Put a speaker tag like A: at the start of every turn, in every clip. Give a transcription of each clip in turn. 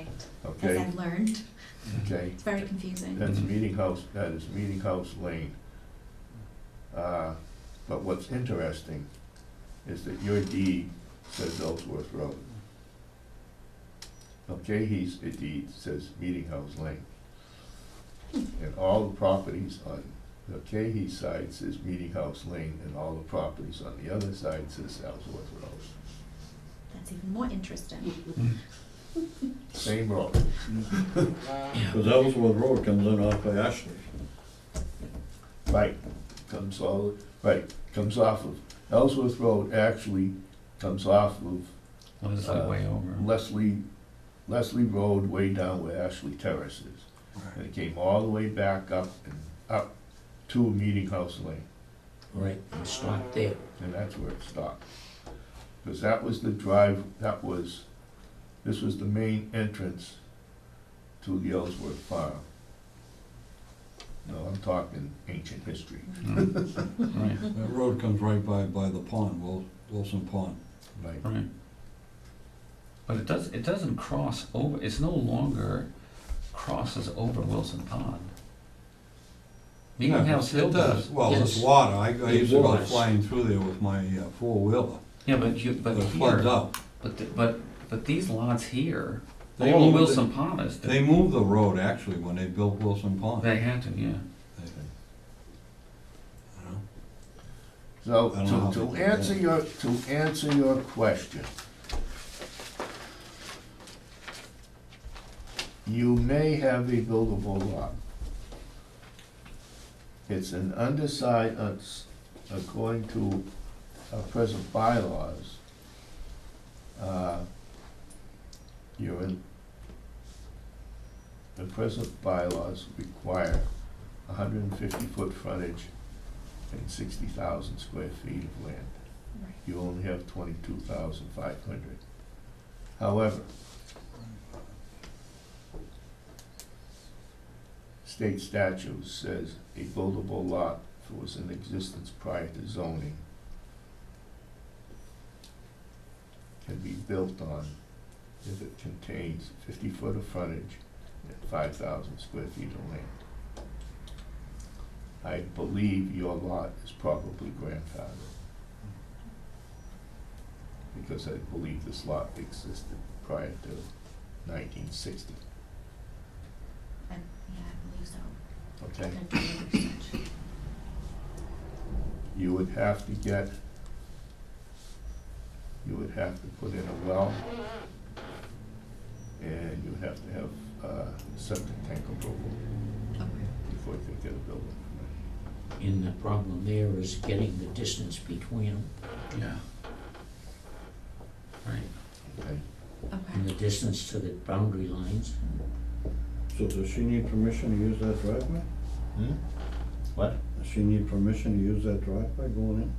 A: as
B: Okay.
A: I've learned.
B: okay?
A: It's very confusing.
B: That's
C: Mhm.
B: Meeting House, that is Meeting House Lane. Uh, But what's interesting is that your deed says Ellsworth Road. Okay, he's, the deed says Meeting House Lane. And all the properties on the Cahey side says Meeting House Lane, and all the properties on the other side says Ellsworth Road.
A: That's even more interesting.
B: Same road.
D: Because Ellsworth Road comes in off by Ashley.
B: Right, comes all, right, comes off of, Ellsworth Road actually comes off of
C: Well, it's like way over.
B: Leslie, Leslie Road way down where Ashley Terrace is. And it came all the way back up and up to Meeting House Lane,
E: Right, and stop there.
B: and that's where it stopped. Because that was the drive, that was, this was the main entrance to the Ellsworth Farm. No, I'm talking ancient history.
C: Mm. Right,
D: That road comes right by, by the pond, Wil- Wilson Pond.
B: Right,
C: right. But it does, it doesn't cross over, it's no longer crosses over Wilson Pond. Meeting
D: Yeah,
C: House Hill
D: It does,
C: does.
D: well, it's
E: Yes.
D: water, I, I
E: It
D: used to go
E: was.
D: flying through there with my uh, four-wheeler.
C: Yeah, but you, but
D: It floods
C: here,
D: up.
C: but, the- but, but these lots here,
D: They
C: all of
D: moved it-
C: Wilson Pond is,
D: They moved the road actually when they built Wilson Pond.
C: they had to, yeah.
D: They- you know?
B: So,
D: I don't know.
B: to, to answer your, to answer your question, you may have a buildable lot. It's an undersized, uh, s- according to our present bylaws, uh, you're in, the present bylaws require hundred and fifty foot frontage and sixty thousand square feet of land.
A: Right.
B: You only have twenty-two thousand five hundred. However, state statute says a buildable lot that was in existence prior to zoning can be built on if it contains fifty foot of frontage and five thousand square feet of land. I believe your lot is probably grandfathered. Because I believe this lot existed prior to nineteen sixty,
A: I- Yeah, I believe so.
B: okay?
A: I've done some research.
B: You would have to get, you would have to put in a well. And you would have to have, uh, septic tank approval
A: Okay.
B: before you can get a building permit.
E: And the problem there is getting the distance between them,
C: Yeah. Right.
B: Okay.
E: and
A: Okay.
E: the distance to the boundary lines.
D: So does she need permission to use that driveway?
C: Hmm?
B: What?
D: Does she need permission to use that driveway going in?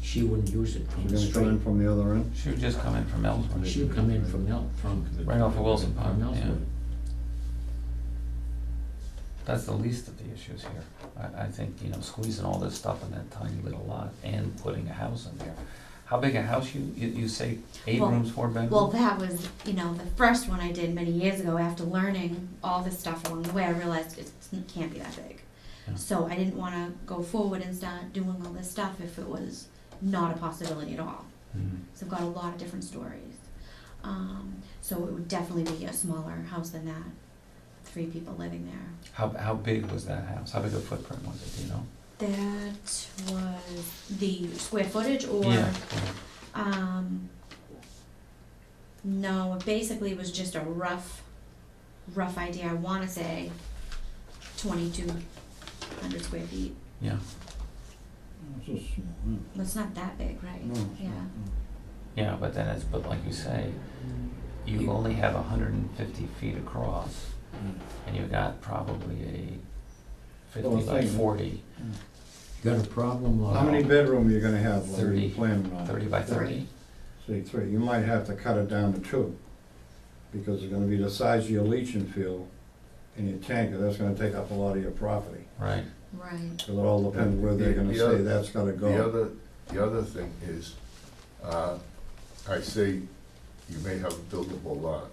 E: She wouldn't use it from
D: She's gonna
E: the
D: come in
E: street.
D: from the other end?
C: She would just come in from Ellsworth,
E: She'd come in from El, from,
C: right off of Wilson Pond,
E: from
C: yeah.
E: elsewhere.
C: That's the least of the issues here. I, I think, you know, squeezing all this stuff in that tiny little lot and putting a house in there. How big a house you, you, you say eight
A: Well-
C: rooms, four bedrooms?
A: Well, that was, you know, the first one I did many years ago after learning all this stuff along the way, I realized it can't be that big.
C: Yeah.
A: So I didn't wanna go forward and start doing all this stuff if it was not a possibility at all.
C: Mhm.
A: So I've got a lot of different stories. Um, so it would definitely be a smaller house than that, three people living there.
C: How, how big was that house? How big a footprint was it, do you know?
A: That was the square footage or,
C: Yeah.
A: um, no, it basically was just a rough, rough idea. I want to say 2,200 square feet.
C: Yeah,
D: It's a small, yeah.
A: Well, it's not that big, right?
D: No, it's
A: Yeah.
D: not, no.
C: yeah, but then it's, but like you say, you
E: You-
C: only have hundred and fifty feet across
D: Mm.
C: and you got probably a fifty
D: Well,
C: by
D: thank you.
C: forty,
E: Got a problem, uh,
D: How
E: Laura?
D: many bedroom you gonna have, like,
C: Thirty.
D: you planning on?
C: thirty by thirty.
D: Say three, you might have to cut it down to two, because it's gonna be the size of your leaching field and your tanker, that's gonna take up a lot of your property.
C: Right,
A: Right.
D: Because it all depends where they're gonna
B: The other-
D: say that's gonna
B: The
D: go.
B: other, the other thing is, uh, I say you may have a buildable lot.